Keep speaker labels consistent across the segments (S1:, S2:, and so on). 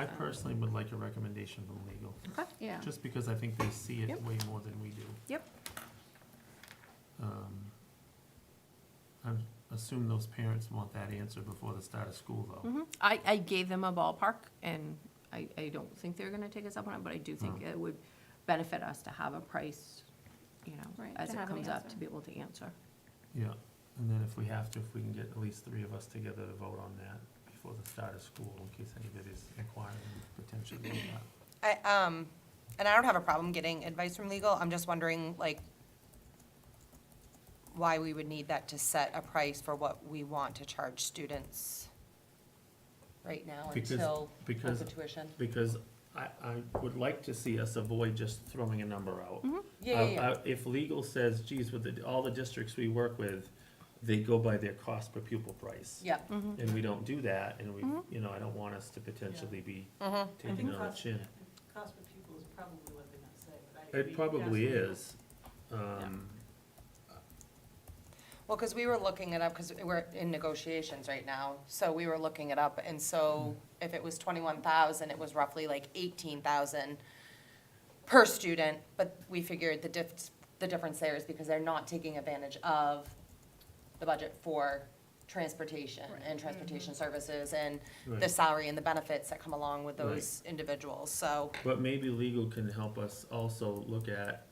S1: I personally would like a recommendation from legal,
S2: Yeah.
S1: just because I think they see it
S2: Yep.
S1: way more than we do.
S2: Yep.
S1: Um, I assume those parents want that answer before the start of school, though.
S2: Mhm. I, I gave them a ballpark, and I, I don't think they're gonna take us up on it, but I do think it would benefit us to have a price, you know,
S3: Right,
S2: as
S3: to
S2: it
S3: have an
S2: comes up, to
S3: answer.
S2: be able to answer.
S1: Yeah, and then if we have to, if we can get at least three of us together to vote on that before the start of school, in case anybody's inquiring potentially. on that.
S4: I, um, and I don't have a problem getting advice from legal, I'm just wondering, like, why we would need that to set a price for what we want to charge students right now
S1: Because-
S4: until
S1: because-
S4: the tuition?
S1: Because I, I would like to see us avoid just throwing a number out.
S4: Yeah, yeah, yeah,
S1: Uh, uh, If legal says, geez, with the, all the districts we work with, they go by their cost per pupil price.
S4: yeah,
S1: And we don't do that, and we,
S4: Mm-hmm.
S1: you know, I don't want us to potentially be
S4: mhm,
S1: taking
S5: think
S1: it on the
S5: cost-
S1: chin.
S5: Cost per pupil is probably what they're gonna say, but I agree.
S1: It probably
S5: Yes.
S1: is, um,
S4: well, because we were looking it up, because we're in negotiations right now, so we were looking it up, and so if it was twenty-one thousand, it was roughly like eighteen thousand per student, but we figured the diff, the difference there is because they're not taking advantage of the budget for transportation and transportation services and the
S1: right.
S4: salary and the benefits that come along with those individuals, so,
S1: But maybe legal can help us also look at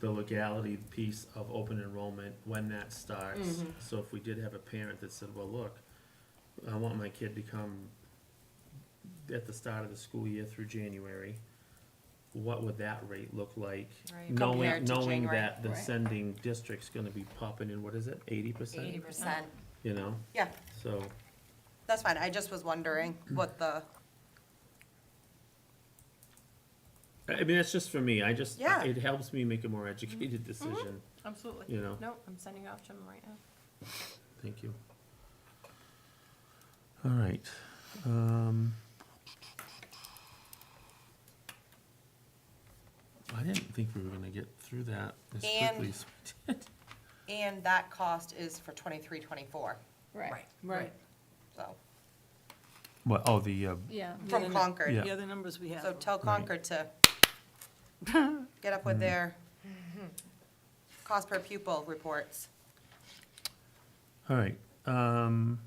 S1: the legality piece of open enrollment, when that starts.
S4: Mhm.
S1: So if we did have a parent that said, well, look, I want my kid to come at the start of the school year through January, what would that rate look like?
S4: Right.
S1: Knowing,
S4: Compared to
S1: knowing
S4: January.
S1: that the
S2: Right.
S1: sending district's gonna be popping in, what is it, eighty percent?
S4: eighty percent,
S1: You know,
S4: yeah,
S1: so,
S4: that's fine, I just was wondering what the,
S1: I I mean, that's just for me, I just,
S4: Yeah. Mm-hmm.
S1: it helps me make a more educated decision,
S2: Absolutely.
S1: you know?
S2: No, I'm sending off to them right now.
S1: Thank you. All right. um, I didn't think we were gonna get through that as
S4: And-
S1: quickly as we did.
S4: and that cost is for twenty-three, twenty-four,
S3: Right,
S2: Right.
S4: so,
S1: What, oh, the, uh,
S2: Yeah.
S3: Yeah,
S4: from
S3: no.
S4: Concord.
S3: the other numbers we
S4: So
S3: have.
S4: tell Concord to get up with their
S3: Mm-hmm.
S4: cost per pupil reports.
S1: all right. um,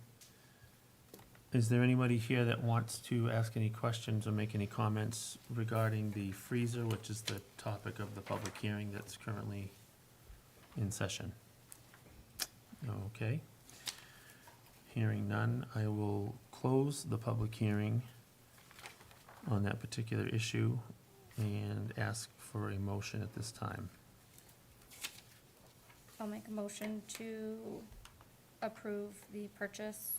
S1: Is there anybody here that wants to ask any questions or make any comments regarding the freezer, which is the topic of the public hearing that's currently in session? Okay. Hearing none, I will close the public hearing on that particular issue and ask for a motion at this time.
S3: I'll make a motion to approve the purchase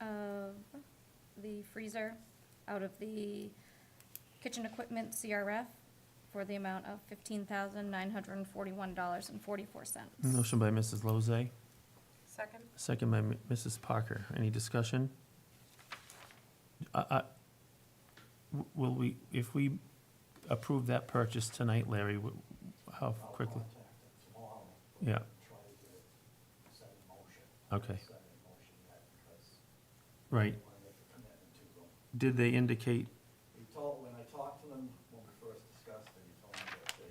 S3: of the freezer out of the kitchen equipment CRF for the amount of fifteen thousand nine hundred and forty-one dollars and forty-four cents.
S1: Motion by Mrs. Lozay.
S4: Second?
S1: Second by M- Mrs. Parker. Any discussion? I- I- w- Will we, if we approve that purchase tonight, Larry, w- how quickly? Yeah. Okay. Right. Did they indicate,
S6: He told, when I talked to them, when we first discussed it, he told me that they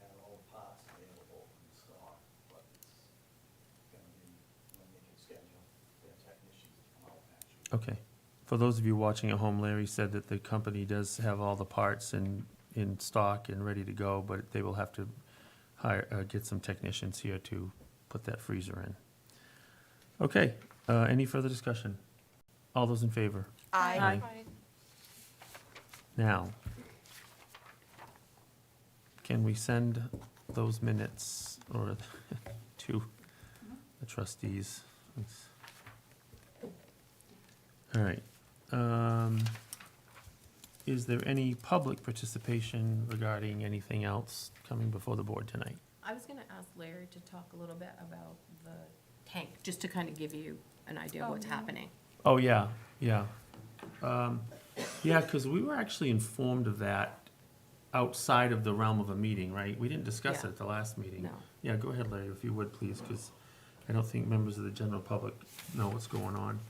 S6: had all the parts available in stock, but it's gonna be when they can schedule their technicians to come out and actually.
S1: okay. For those of you watching at home, Larry said that the company does have all the parts in, in stock and ready to go, but they will have to hire, uh, get some technicians here to put that freezer in. Okay, uh, any further discussion? All those in favor?
S4: Aye.
S1: Now, can we send those minutes or to the trustees? Let's- All right. um, Is there any public participation regarding anything else coming before the board tonight?
S2: I was gonna ask Larry to talk a little bit about the tank, just to kind of give you an idea of
S3: Oh,
S2: what's
S3: yeah.
S2: happening.
S1: Oh, yeah, yeah. Um, Yeah, because we were actually informed of that outside of the realm of a meeting, right? We didn't discuss it at the last meeting.
S2: No,
S1: Yeah, go ahead, Larry, if you would, please, because I don't think members of the general public know what's going on.